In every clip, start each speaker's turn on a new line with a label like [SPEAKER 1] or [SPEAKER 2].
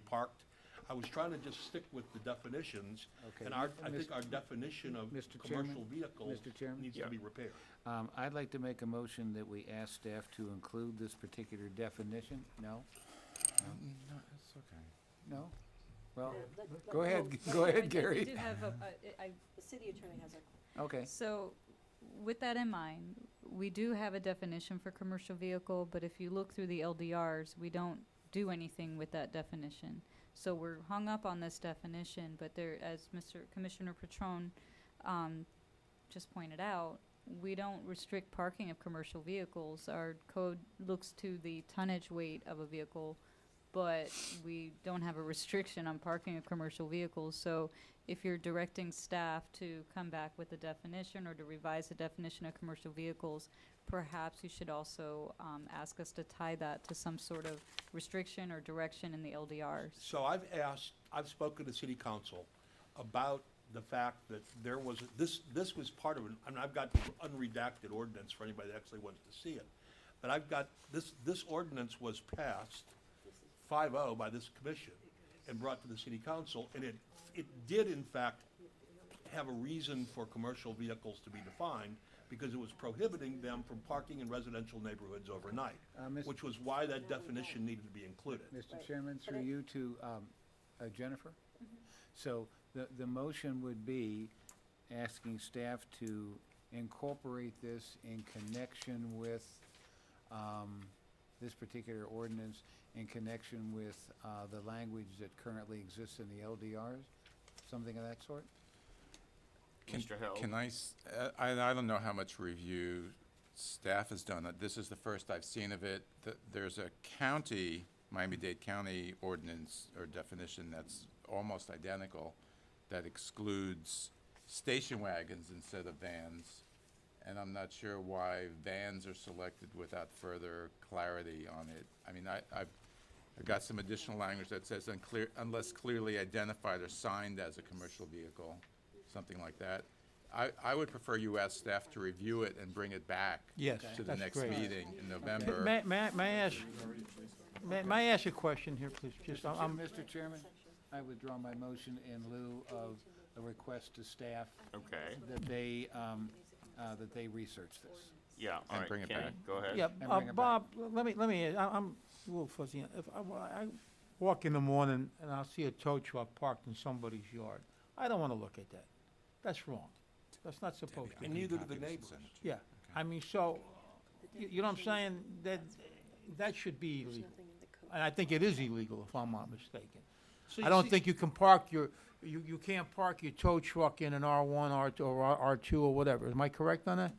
[SPEAKER 1] parked. I was trying to just stick with the definitions,
[SPEAKER 2] Okay.
[SPEAKER 1] and our, I
[SPEAKER 2] Mis-
[SPEAKER 1] think our definition of
[SPEAKER 2] Mr. Chairman?
[SPEAKER 1] commercial vehicle
[SPEAKER 2] Mr. Chairman?
[SPEAKER 1] needs to be repaired.
[SPEAKER 2] Um, I'd like to make a motion that we ask staff to include this particular definition. No?
[SPEAKER 3] Mm, No, it's okay.
[SPEAKER 2] No? Well,
[SPEAKER 4] Let- let-
[SPEAKER 2] go ahead,
[SPEAKER 4] let-
[SPEAKER 2] go
[SPEAKER 4] I
[SPEAKER 2] ahead,
[SPEAKER 4] do- I
[SPEAKER 2] Gary.
[SPEAKER 4] do have a- a- I-
[SPEAKER 5] The city attorney has a,
[SPEAKER 2] Okay.
[SPEAKER 4] So with that in mind, we do have a definition for commercial vehicle, but if you look through the LDRs, we don't do anything with that definition. So we're hung up on this definition, but there, as Mr. Commissioner Patron, um, just pointed out, we don't restrict parking of commercial vehicles. Our code looks to the tonnage weight of a vehicle, but we don't have a restriction on parking of commercial vehicles. So if you're directing staff to come back with a definition or to revise the definition of commercial vehicles, perhaps you should also um, ask us to tie that to some sort of restriction or direction in the LDRs.
[SPEAKER 1] So I've asked, I've spoken to city council about the fact that there was, this, this was part of, an- and I've got the unredacted ordinance for anybody that actually wants to see it. But I've got, this, this ordinance was passed 5-0 by this commission and brought to the city council, and it, it did in fact have a reason for commercial vehicles to be defined, because it was prohibiting them from parking in residential neighborhoods overnight,
[SPEAKER 2] Uh, Mis-
[SPEAKER 1] which was why that definition needed to be included.
[SPEAKER 2] Mr. Chairman, through you to um, uh, Jennifer. So the, the motion would be asking staff to incorporate this in connection with um, this particular ordinance, in connection with uh, the language that currently exists in the LDRs, something of that sort?
[SPEAKER 3] Can-
[SPEAKER 6] Mr. Hill.
[SPEAKER 3] Can I, s- uh, I, I don't know how much review staff has done. Uh, This is the first I've seen of it. Th- There's a county, Miami-Dade County ordinance or definition that's almost identical that excludes station wagons instead of vans. And I'm not sure why vans are selected without further clarity on it. I mean, I, I've, I've got some additional language that says unclear, unless clearly identified or signed as a commercial vehicle, something like that. I, I would prefer you ask staff to review it and bring it back
[SPEAKER 7] Yes,
[SPEAKER 3] to the
[SPEAKER 7] that's
[SPEAKER 3] next
[SPEAKER 7] great.
[SPEAKER 3] meeting in November.
[SPEAKER 7] May, may, I- may I ask, may, may I ask a question here, please?
[SPEAKER 2] Mr.
[SPEAKER 7] Just,
[SPEAKER 2] Chair-
[SPEAKER 7] I'm,
[SPEAKER 2] Mr. Chairman, I withdraw my motion in lieu of a request to staff
[SPEAKER 6] Okay,
[SPEAKER 2] that they, um, uh, that they research this.
[SPEAKER 6] yeah, all
[SPEAKER 3] And
[SPEAKER 6] right,
[SPEAKER 3] bring it
[SPEAKER 6] Kenny,
[SPEAKER 3] back.
[SPEAKER 6] go ahead.
[SPEAKER 7] yeah,
[SPEAKER 2] And
[SPEAKER 7] uh,
[SPEAKER 2] bring it back.
[SPEAKER 7] Bob, l- let me, let me, I, I'm a little fuzzy. If I, wa- I walk in the morning and I'll see a tow truck parked in somebody's yard, I don't wanna look at that. That's wrong. That's not supposed to be.
[SPEAKER 1] And neither do the neighbors.
[SPEAKER 7] Yeah, I mean, so, you, you know what I'm saying? That, that should be illegal.
[SPEAKER 5] nothing in the code.
[SPEAKER 7] And I think it is illegal, if I'm not mistaken.
[SPEAKER 2] So
[SPEAKER 7] I
[SPEAKER 2] you
[SPEAKER 7] don't
[SPEAKER 2] see-
[SPEAKER 7] think you can park your, you, you can't park your tow truck in an R one, R two, or R two, or whatever. Am I correct on that?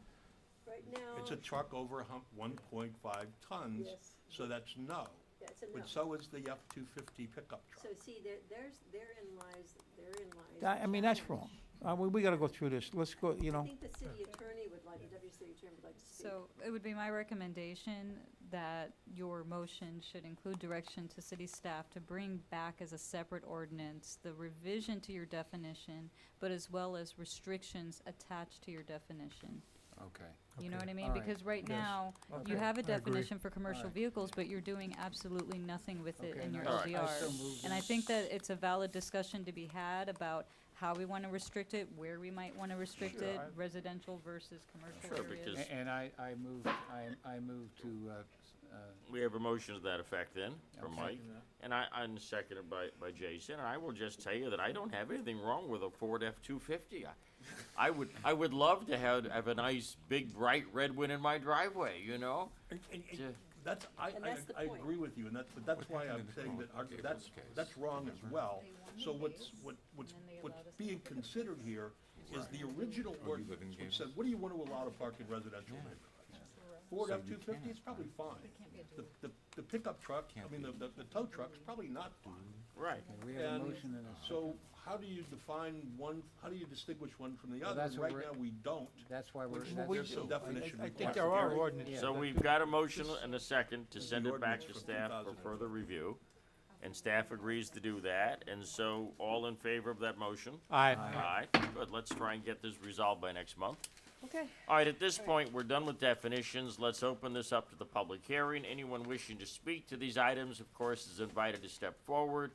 [SPEAKER 5] Right now,
[SPEAKER 1] It's a truck over a hump, one point five tons,
[SPEAKER 5] Yes.
[SPEAKER 1] so that's no.
[SPEAKER 5] that's a no.
[SPEAKER 1] But so is the F-250 pickup
[SPEAKER 5] So
[SPEAKER 1] truck.
[SPEAKER 5] see, there, there's, therein lies, therein lies.
[SPEAKER 7] That-
[SPEAKER 5] the
[SPEAKER 7] I mean, that's wrong.
[SPEAKER 5] challenge.
[SPEAKER 7] Uh, we, we gotta go through this. Let's go, you
[SPEAKER 5] I
[SPEAKER 7] know,
[SPEAKER 5] think the city attorney would like, the deputy city attorney would like to speak.
[SPEAKER 4] So it would be my recommendation that your motion should include direction to city staff to bring back as a separate ordinance the revision to your definition, but as well as restrictions attached to your definition.
[SPEAKER 2] Okay.
[SPEAKER 4] You know what I mean?
[SPEAKER 2] All right.
[SPEAKER 4] Because right
[SPEAKER 7] Yes.
[SPEAKER 4] now, you
[SPEAKER 2] Okay.
[SPEAKER 4] have a
[SPEAKER 7] I agree.
[SPEAKER 4] definition for
[SPEAKER 2] All
[SPEAKER 4] commercial
[SPEAKER 2] right.
[SPEAKER 4] vehicles, but you're doing absolutely nothing with it
[SPEAKER 2] Okay,
[SPEAKER 4] in your
[SPEAKER 2] no,
[SPEAKER 6] All right.
[SPEAKER 4] LDR.
[SPEAKER 2] I so moved
[SPEAKER 4] And I
[SPEAKER 2] this.
[SPEAKER 4] think that it's a valid discussion to be had about how we want to restrict it, where we might want to restrict
[SPEAKER 7] Sure,
[SPEAKER 4] it,
[SPEAKER 7] I-
[SPEAKER 4] residential versus commercial
[SPEAKER 6] Sure,
[SPEAKER 4] areas.
[SPEAKER 6] because
[SPEAKER 2] A- And I, I moved, I, I moved to, uh, s- uh,
[SPEAKER 6] We have a motion to that effect then, from
[SPEAKER 2] Okay.
[SPEAKER 6] Mike, and I, I'm seconded by, by Jason, and I will just tell you that I don't have anything wrong with a Ford F-250. I- I would, I would love to have, have a nice, big, bright red one in my driveway, you know?
[SPEAKER 1] And- and- and
[SPEAKER 6] Yeah.
[SPEAKER 1] That's, I,
[SPEAKER 5] And
[SPEAKER 1] I,
[SPEAKER 5] that's the
[SPEAKER 1] I
[SPEAKER 5] point.
[SPEAKER 1] agree with you, and that's, but that's why I'm
[SPEAKER 3] happened in the
[SPEAKER 1] saying that,
[SPEAKER 3] Crown
[SPEAKER 1] our-
[SPEAKER 3] Gables
[SPEAKER 1] that's,
[SPEAKER 3] case?
[SPEAKER 1] that's wrong as well.
[SPEAKER 4] wanted
[SPEAKER 1] So what's,
[SPEAKER 4] these,
[SPEAKER 1] what, what's,
[SPEAKER 4] and then they
[SPEAKER 1] what's
[SPEAKER 4] allowed us to
[SPEAKER 1] being considered here is the original
[SPEAKER 3] Oh, you live in
[SPEAKER 1] ordinance, which
[SPEAKER 3] Gables?
[SPEAKER 1] said, what do you want to allow to park in residential neighborhoods? Ford F-250 is probably fine. The, the, the pickup truck, I
[SPEAKER 3] Can't
[SPEAKER 1] mean, the,
[SPEAKER 3] be.
[SPEAKER 1] the the tow truck's probably not fine.
[SPEAKER 6] Right.
[SPEAKER 2] we have a
[SPEAKER 1] And
[SPEAKER 2] motion and a second.
[SPEAKER 1] So how do you define one, how do you distinguish one from the
[SPEAKER 2] Well,
[SPEAKER 1] other?
[SPEAKER 2] that's
[SPEAKER 1] And
[SPEAKER 2] what
[SPEAKER 1] Right
[SPEAKER 2] we're-
[SPEAKER 1] now, we don't.
[SPEAKER 2] That's why we're.
[SPEAKER 1] Which
[SPEAKER 2] that's-
[SPEAKER 7] we
[SPEAKER 1] There's some
[SPEAKER 7] do.
[SPEAKER 1] definition
[SPEAKER 7] I think
[SPEAKER 1] required.
[SPEAKER 7] there are
[SPEAKER 1] Gary?
[SPEAKER 7] ordinances.
[SPEAKER 2] Yeah,
[SPEAKER 6] So
[SPEAKER 2] that's
[SPEAKER 6] we've got a motion and a second to
[SPEAKER 1] is
[SPEAKER 6] send
[SPEAKER 1] the
[SPEAKER 6] it back
[SPEAKER 1] ordinance
[SPEAKER 6] to
[SPEAKER 1] for
[SPEAKER 6] staff for
[SPEAKER 1] 2000.
[SPEAKER 6] further review, and staff agrees to do that, and so all in favor of that motion?
[SPEAKER 7] Aye.
[SPEAKER 6] Aye, good, let's try and get this resolved by next month.
[SPEAKER 5] Okay.
[SPEAKER 6] All right, at this point, we're done with definitions. Let's open this up to the public hearing. Anyone wishing to speak to these items, of course, is invited to step forward.